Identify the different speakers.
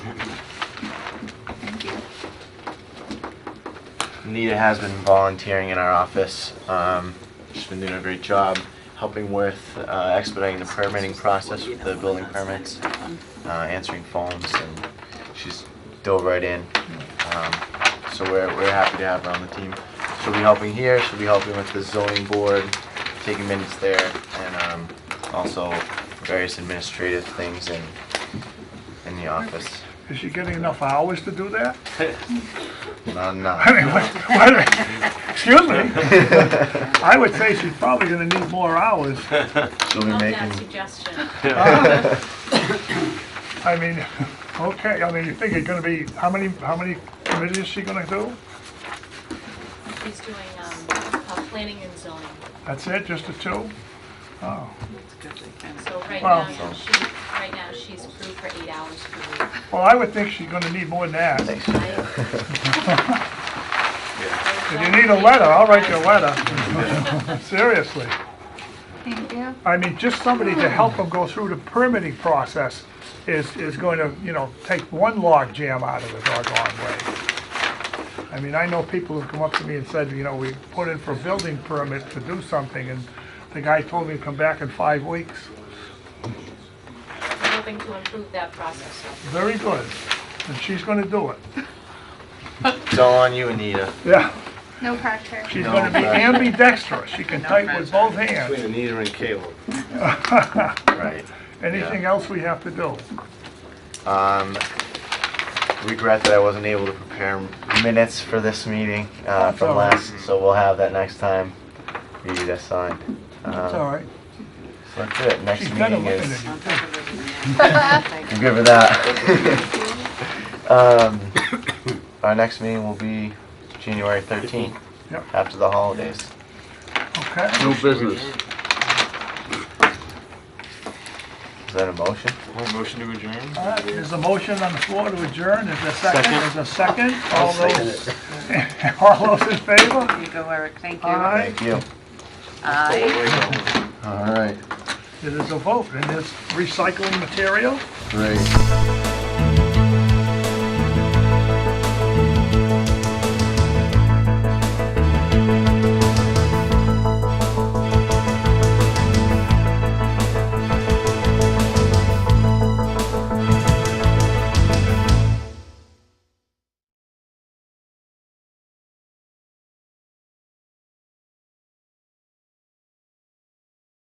Speaker 1: Anita has been volunteering in our office. Um, she's been doing a great job helping with uh, expediting the permitting process with the building permits, uh, answering phones, and she's dove right in. Um, so we're, we're happy to have her on the team. She'll be helping here, she'll be helping with the zoning board, taking minutes there, and um, also various administrative things in, in the office.
Speaker 2: Is she getting enough hours to do that?
Speaker 1: Not
Speaker 2: I
Speaker 1: enough.
Speaker 2: mean, what, what, excuse me, I would say she's probably gonna need more hours.
Speaker 1: She'll be
Speaker 3: Love
Speaker 1: making,
Speaker 3: that suggestion.
Speaker 2: I mean, okay, I mean, you think it's gonna be, how many, how many committees is she gonna do?
Speaker 3: He's doing, um, uh, planning and zoning.
Speaker 2: That's it, just the two? Oh,
Speaker 3: So right
Speaker 2: Wow.
Speaker 3: now, she, right now, she's approved for eight hours per week.
Speaker 2: well, I would think she's gonna need more than that.
Speaker 1: thanks.
Speaker 3: I agree.
Speaker 2: If you need a letter, I'll write you a letter, seriously.
Speaker 4: Thank you.
Speaker 2: I mean, just somebody to help them go through the permitting process is, is going to, you know, take one log jam out of the doggone way. I mean, I know people who've come up to me and said, you know, we put in for building permit to do something, and the guy told me to come back in five weeks.
Speaker 3: I'm hoping to improve that process.
Speaker 2: Very good, and she's gonna do it.
Speaker 1: It's all on you, Anita.
Speaker 2: Yeah,
Speaker 4: No pressure.
Speaker 2: she's
Speaker 1: No,
Speaker 2: gonna be
Speaker 1: right.
Speaker 2: ambidextrous, she can type with both hands.
Speaker 1: Anita and Caleb. Right.
Speaker 2: Anything else we have to do?
Speaker 1: Um, regret that I wasn't able to prepare minutes for this meeting, uh,
Speaker 2: That's
Speaker 1: from
Speaker 2: all right.
Speaker 1: last, so we'll have that next time. You need that signed. Um,
Speaker 2: It's all right,
Speaker 1: So that's it, next
Speaker 2: she's better
Speaker 1: meeting
Speaker 2: looking
Speaker 1: is,
Speaker 2: at you.
Speaker 1: I'm good with that. Um, our next meeting will be January thirteenth,
Speaker 2: Yep.
Speaker 1: after the holidays.
Speaker 2: Okay,
Speaker 5: No business.
Speaker 1: Is that a motion?
Speaker 5: Motion to adjourn?
Speaker 2: All right, there's a motion on the floor to adjourn, is there a second, is there a second? All those, all those in favor?
Speaker 6: You go, Eric, thank you.
Speaker 2: Aye,
Speaker 1: Thank you.
Speaker 6: Aye.
Speaker 1: All right,
Speaker 2: it is a vote, and it's recycling material?
Speaker 1: great.